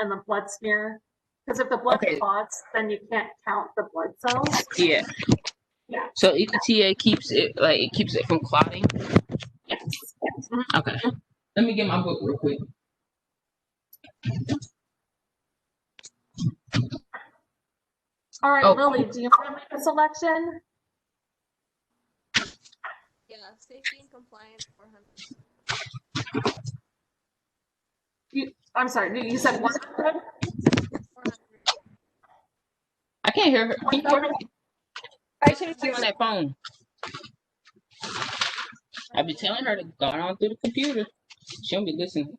and the blood smear. Because if the blood Okay. clots, then you can't count the blood cells. Yeah. Yeah. So ETA keeps it like it keeps it from clotting. Yes. Okay. Let me get my book real quick. All right, Oh. Lily, do you want to make a selection? Yeah, safety and compliance for him. I'm sorry, you- you said one hundred? 400. I can't hear her. Can you hear her? I should have on that phone. I've been telling her to go on through the computer. She don't be listening.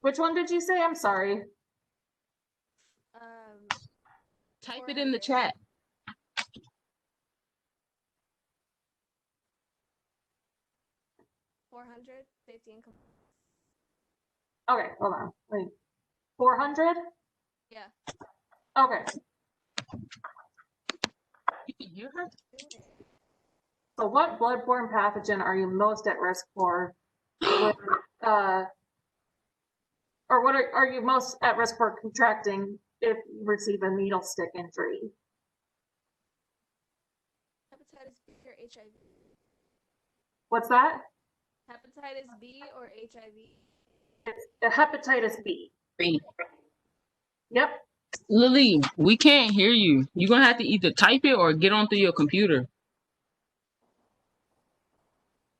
Which one did you say? I'm sorry. Um, Type it in the chat. four hundred, safety and compliance. Okay, hold on, wait. Four hundred? Yeah. Okay, You can hear her? so what bloodborne pathogen are you most at risk for? with, uh, Or what are, are you most at risk for contracting if you receive a needle stick injury? Hepatitis B or HIV. What's that? Hepatitis B or HIV. Uh, Hepatitis B. B. Yep, Lily, we can't hear you. You're gonna have to either type it or get on through your computer.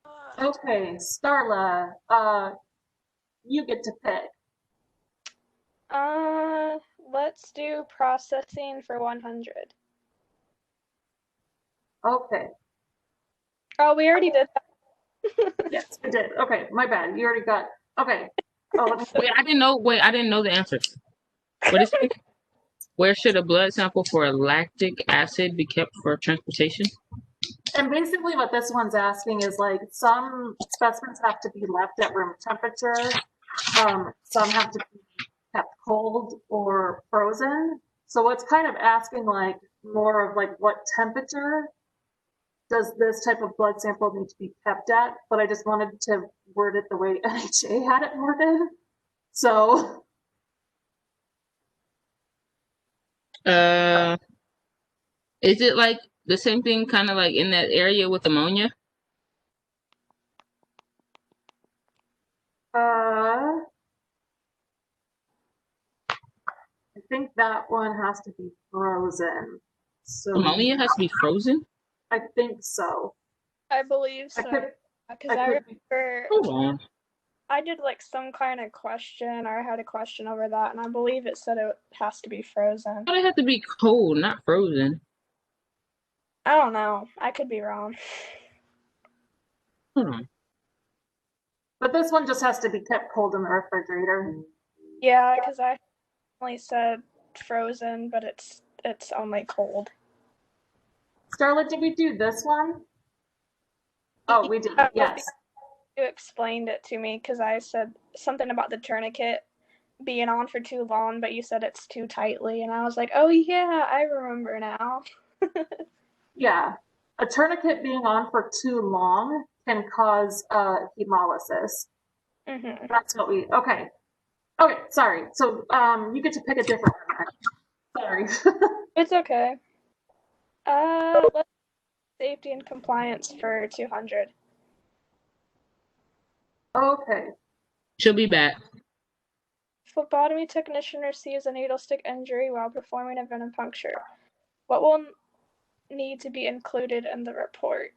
Uh, okay, Starla, uh, you get to pick. Uh, let's do processing for 100. Okay, Oh, we already did that. yes, we did. Okay, my bad, you already got, okay. Oh, let me- Wait, I didn't know. Wait, I didn't know the answer. What is it? Where should a blood sample for lactic acid be kept for transportation? And basically what this one's asking is like, some specimens have to be left at room temperature. Um, some have to be kept cold or frozen. So it's kind of asking like, more of like, what temperature does this type of blood sample need to be kept at? But I just wanted to word it the way NHA had it worded. So, Uh, is it like the same thing, kind of like in that area with ammonia? uh, I think that one has to be frozen. So. Ammonia has to be frozen. I think so. I believe so. I could- Because I I, could be- remember Hold on. I did like some kind of question or I had a question over that, and I believe it said it has to be frozen. Why do they have to be cold, not frozen? I don't know. I could be wrong. Hold on. But this one just has to be kept cold in the refrigerator. Yeah, because I only said frozen, but it's it's only cold. Starla, did we do this one? Oh, we did, Yeah. yes. You explained it to me because I said something about the tourniquet being on for too long, but you said it's too tightly, and I was like, oh yeah, I remember now. Yeah. A tourniquet being on for too long can cause uh, hemolysis. hmm That's what we, okay. Okay, sorry. So um, you get to pick a different one. Sorry. It's okay. Uh, let's safety and compliance for 200. Okay. She'll be back. Phlebotomy technician receives a needle stick injury while performing a venipuncture. What will n- need to be included in the report?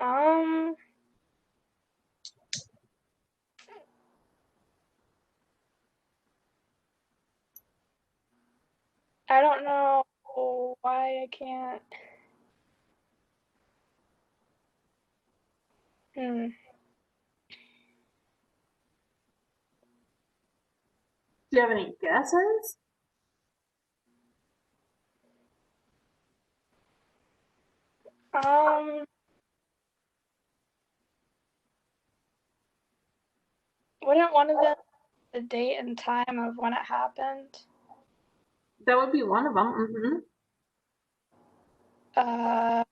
Um, I don't know why I can't. Hmm. Do you have any guesses? Um. Wouldn't one of them the date and time of when it happened? Mm-hmm. That would be one of them. hmm Uh,